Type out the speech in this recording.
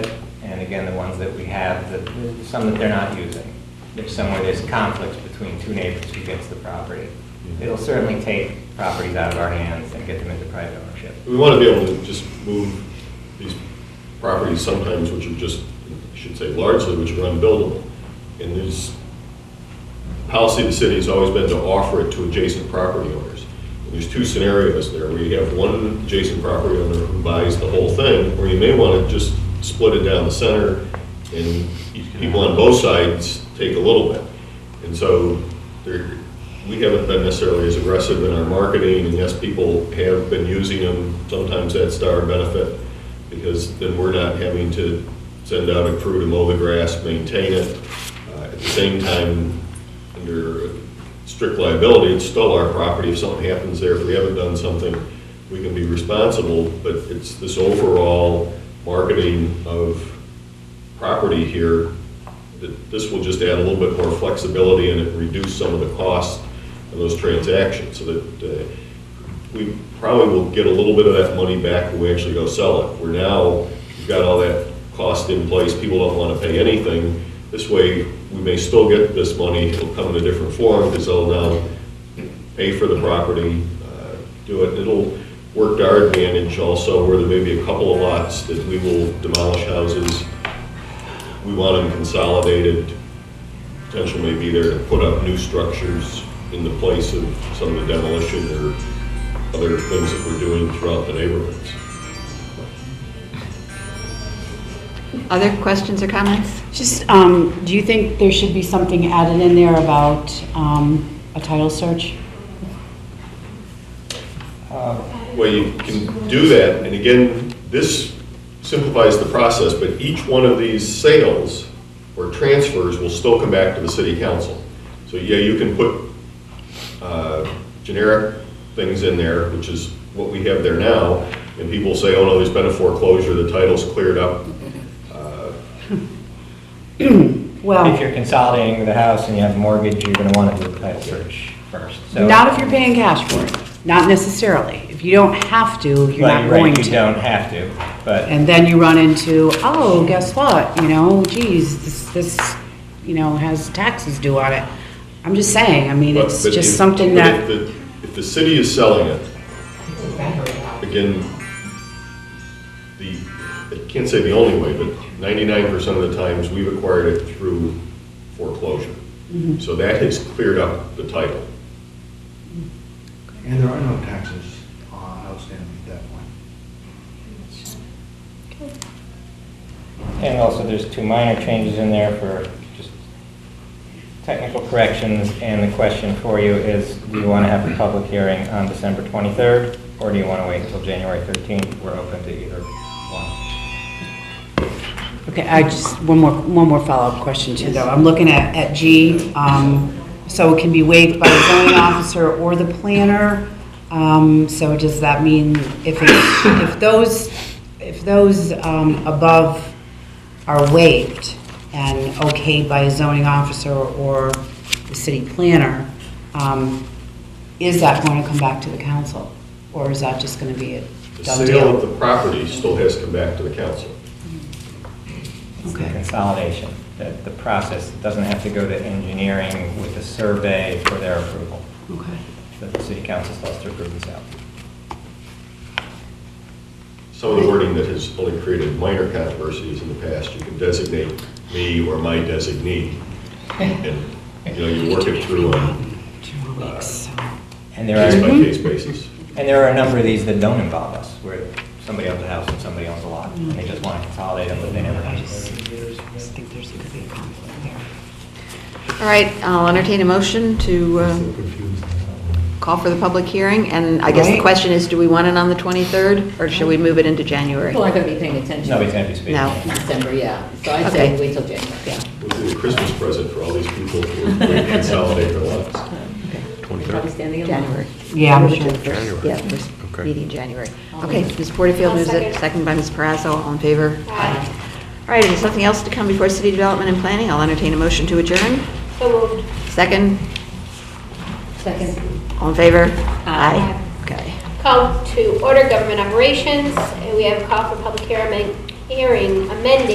again, the ones that we have, that, there's some that they're not using. There's some where there's conflicts between two neighbors who gets the property. It'll certainly take properties out of our hands and get them into private ownership. We want to be able to just move these properties sometimes, which are just, I should say largely, which are unbuildable. And there's, policy of the city has always been to offer it to adjacent property owners. And there's two scenarios there, where you have one adjacent property owner who buys the whole thing, or you may want to just split it down the center, and people on both sides take a little bit. And so there, we haven't been necessarily as aggressive in our marketing, and yes, people have been using them. Sometimes that's to our benefit, because then we're not having to send out a crew to mow the grass, maintain it. Uh, At the same time, under strict liability, it's still our property. If something happens there, if we haven't done something, we can be responsible, but it's this overall marketing of property here, that this will just add a little bit more flexibility and it reduce some of the cost of those transactions, so that uh, we probably will get a little bit of that money back when we actually go sell it. We're now, we've got all that cost in place, people don't want to pay anything. This way, we may still get this money, it'll come in a different form, because they'll now pay for the property, uh, do it. It'll work to our advantage also, where there may be a couple of lots that we will demolish houses. We want them consolidated, potential may be there to put up new structures in the place of some of the demolition or other things that we're doing throughout the neighborhoods. Other questions or comments? Just, um, do you think there should be something added in there about, um, a title search? Well, you can do that, and again, this simplifies the process, but each one of these sales or transfers will still come back to the city council. So, yeah, you can put uh, generic things in there, which is what we have there now, and people say, oh, no, there's been a foreclosure, the title's cleared up. If Well, you're consolidating the house and you have a mortgage, you're gonna wanna do a title search first, so. not if you're paying cash for it, not necessarily. If you don't have to, you're Well, not you're going right, you to. don't have to, but And then you run into, oh, guess what, you know, geez, this, this, you know, has taxes due on it. I'm just saying, I mean, But- it's but just if- something but that, If the, if the city is selling it, again, the, I can't say the only way, but ninety-nine percent of the times, we've acquired it through foreclosure. So that has cleared up the title. And there are no taxes uh, outstanding at that point. And also, there's two minor changes in there for just technical corrections, and the question for you is, do you want to have a public hearing on December 23rd, or do you want to wait until January 13th? We're open to either one. okay, I just, one more, one more follow-up question too, though. I'm looking at, at G, um, so it can be waived by the zoning officer or the planner. Um, so does that mean if it, if those, if those, um, above are waived and okayed by a zoning officer or the city planner, um, is that going to come back to the council? Or is that just going to be a The done sale of deal? the property still has to come back to the council. It's the Okay. consolidation, that the process doesn't have to go to engineering with a survey for their approval, Okay. that the city council still has to approve this out. Some of the wording that has only created minor controversies in the past, you can designate me or my designee. And, you know, you work it through on Two weeks, so. And there are, Mhm. and case-by-case basis. there are a number of these that don't involve us, where somebody owns a house and somebody owns a lot, and they just want to consolidate them, but they never I have. just just think there's going to be a conflict there. All right, I'll entertain a motion to uh, call for the public hearing, and I guess the Right. question is, do we want it on the 23rd, or should we move it into January? People aren't going to be paying attention. Nobody's going to be speaking. No. in December, yeah. So I'd say Okay. wait till January, yeah. Would be a Christmas present for all these people who are consolidating their lives. Probably standing in line. January. Yeah, I'm sure. January. Yeah, first meeting in January. Okay, Ms. Porterfield I'll moves it, second. second by Ms. Parazzo, all in favor? Aye. All right, if there's nothing else to come before city development and planning, I'll entertain a motion to adjourn. So moved. Second, Second. all in favor? Aye. Okay. Call to order government operations. We have a call for public hearing hearing amending